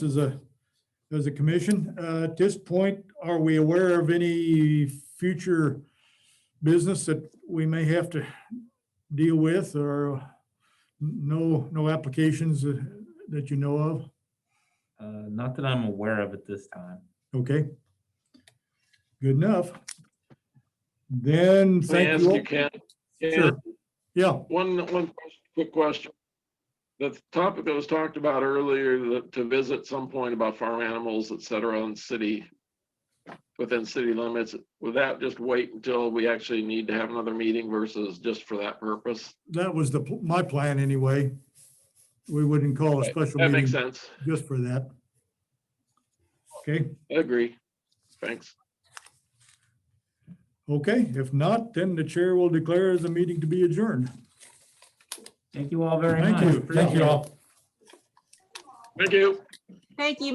as a, as a commission. Uh, At this point, are we aware of any future business that we may have to deal with or no, no applications uh, that you know of? Uh, Not that I'm aware of at this time. Okay. Good enough. Then, Can I thank ask you. you, all- Ken? Sure. Ken, Yeah, one, one ques- quick question. The topic that was talked about earlier, the- to visit some point about farm animals, et cetera, in city, within city limits, would that just wait until we actually need to have another meeting versus just for that purpose? that was the, pl- my plan anyway. We wouldn't call a special That makes meeting sense. just for that. Okay. I agree. Thanks. Okay, if not, then the chair will declare the meeting to be adjourned. Thank you all very much. Thank you. Appreciate it. all. Thank you. Thank you.